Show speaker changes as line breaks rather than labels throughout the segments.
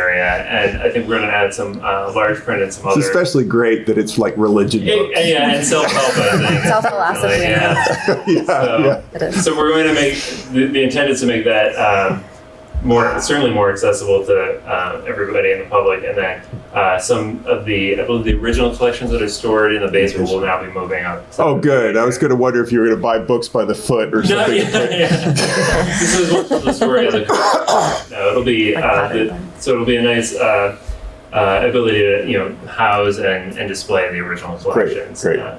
at, and I think we're going to add some uh, large print and some
It's
other.
especially great that it's like religion books.
Yeah, yeah, and self-help. I think.
Self-philosophy.
Yeah.
yeah, yeah.
So,
It is.
so we're going to make the, the intent is to make that um, more certainly more accessible to um, everybody in the public, and then uh, some of the I believe the original collections that are stored in the basement will now be moving up.
Oh, good. I was going to wonder if you were going to buy books by the foot
No,
or something.
yeah, yeah. this is what the story is. No, it'll be
Like
uh,
modern
the, so it'll be a nice uh, uh, ability to you know house and, and display the original collections.
great.
Uh,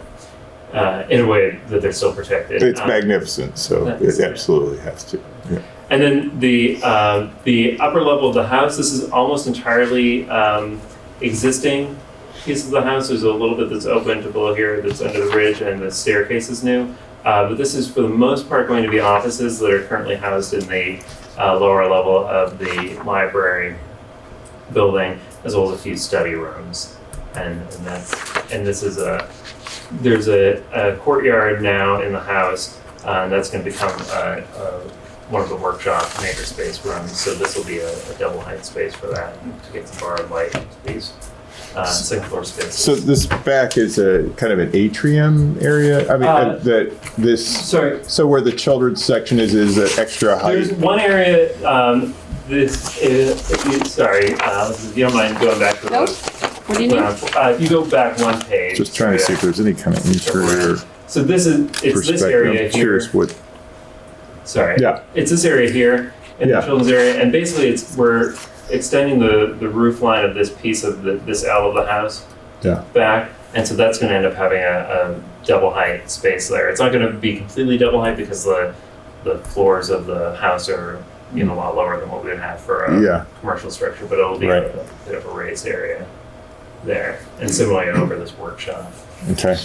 uh, in a way that they're still protected.
It's
Um,
magnificent, so
that
it
is-
absolutely has to. Yeah.
And then the um, the upper level of the house. This is almost entirely um, existing piece of the house. There's a little bit that's open to below here that's under the ridge, and the staircase is new. Uh, but this is for the most part going to be offices that are currently housed in the uh, lower level of the library building, as well as a few study rooms. And, and that's and this is a there's a, a courtyard now in the house uh, that's going to become a, a one of the workshop makerspace rooms, so this will be a, a double height space for that to get some borrowed light into these uh, second floor spaces.
So this back is a kind of an atrium area. I mean,
Uh,
that this.
sorry.
So where the children's section is is an extra height.
There's one area. Um, this is if you- sorry. Uh, if you don't mind going back to the
Nope. What do you need?
uh, if you go back one page.
Just trying to see if there's any kind of interior
So this is it's this
perspective.
area
I'm
here.
curious what.
Sorry.
Yeah.
It's this area here in
Yeah.
the children's area, and basically it's we're extending the the roof line of this piece of the, this L of the house.
Yeah.
back, and so that's going to end up having a, a double height space there. It's not going to be completely double height because the the floors of the house are you know a lot lower than what we would have for a
Yeah.
commercial structure, but it'll be
Right.
a, bit of a raised area there, and similarly over this workshop.
Okay.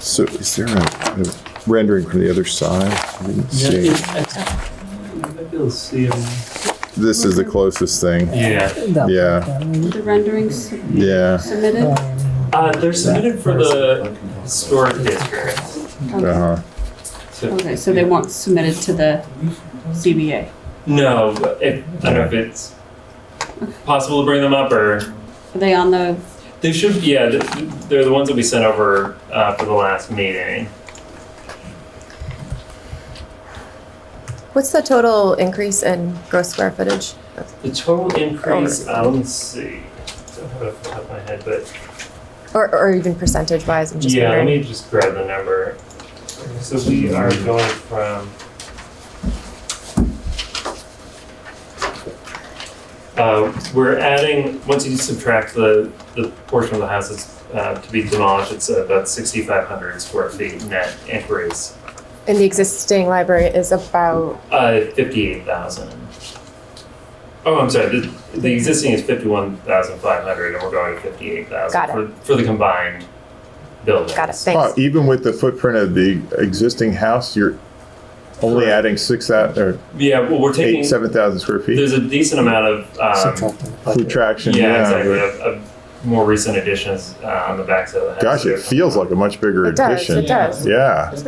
So is there a, a rendering from the other side? I didn't
Yeah,
see.
it- I- Maybe I'll see it.
This is the closest thing.
Yeah,
Yeah.
The renderings
Yeah.
Um,
submitted.
uh, they're submitted for the historic district.
Uh huh.
So-
Okay, so they weren't submitted to the CBA.
No, but if, I don't know if it's possible to bring them up or
Are they on the,
They should, yeah, th- th- they're the ones that we sent over uh, for the last meeting.
What's the total increase in gross square footage?
The total increase,
Oh,
uh, let me see, I don't have it off the top of my head, but
Or, or even percentage wise, I'm just
yeah, let
wondering.
me just grab the number. So we are going from. Uh, we're adding, once you subtract the, the portion of the house that's uh, to be demolished, it's about 6,500 square feet net increase,
And the existing library is about,
Uh, fifty-eight thousand. Oh, I'm sorry, the, the existing is fifty-one thousand five hundred, and we're going to fifty-eight
Got
thousand
it.
for, for the combined buildings.
got it,
Wow,
thanks.
even with the footprint of the existing house, you're only
Correct.
adding six out or
Yeah, well, we're taking,
eight, seven thousand square feet.
there's a decent amount of, um,
Food traction.
yeah, exactly,
but-
of, of more recent additions, uh, on the backside of the house.
Gosh, it feels like a much bigger
It does,
addition.
it does.
Yeah.
Is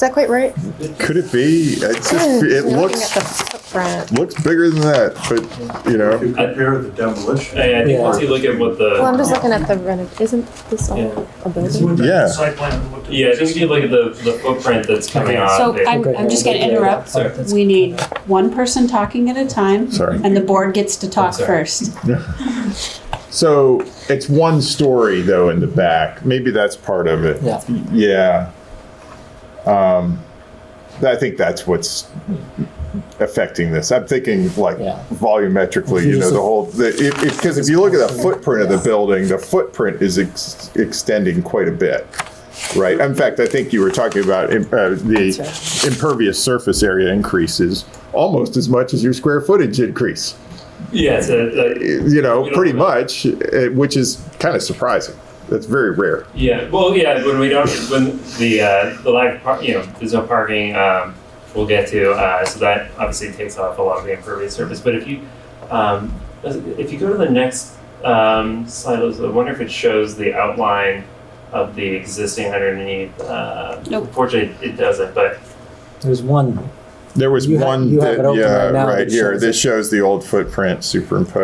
that quite right?
Could it be? It's just,
Hmm,
it
I'm looking
looks
at the footprint.
looks bigger than that, but you
If
know,
you compare the demolition.
I, I think
Yeah.
once you look at what
Well, I'm
the,
just looking at the renov, isn't this all a building?
Yeah.
Site plan and what the-
yeah, I think if you look at the, the footprint that's coming
Okay.
off.
so
it-
I'm, I'm just gonna interrupt.
Uh, Sorry.
We need one person talking at a time
sorry.
and the board gets to talk
sorry.
first.
So it's one story though in the back. Maybe that's part of it.
Yeah.
Yeah. Um, I think that's what's affecting this. I'm thinking like
Yeah.
volumetrically, you know, the whole, the, if, if, cause if you look at the footprint of the building, the footprint is ex- extending quite a bit. Right. In fact, I think you were talking about im- uh, the
That's
impervious surface area increases almost as much as your square footage increase
Yeah, it's a, a-
you know,
We don't
pretty
know.
much, uh, which is kind of surprising. That's very rare.
Yeah, well, yeah, when we don't, when the, uh, the lack of, par- you know, there's no parking, um, we'll get to, uh, so that obviously takes off a lot of the impervious surface, but if you, um, if you go to the next, um, slide, I wonder if it shows the outline of the existing underneath, uh,
Nope.
fortunately, it doesn't, but,
There's one
There was
You have-
one
you have it
that,
open
yeah,
right now
right
that
here.
shows
This shows the old footprint superimposed.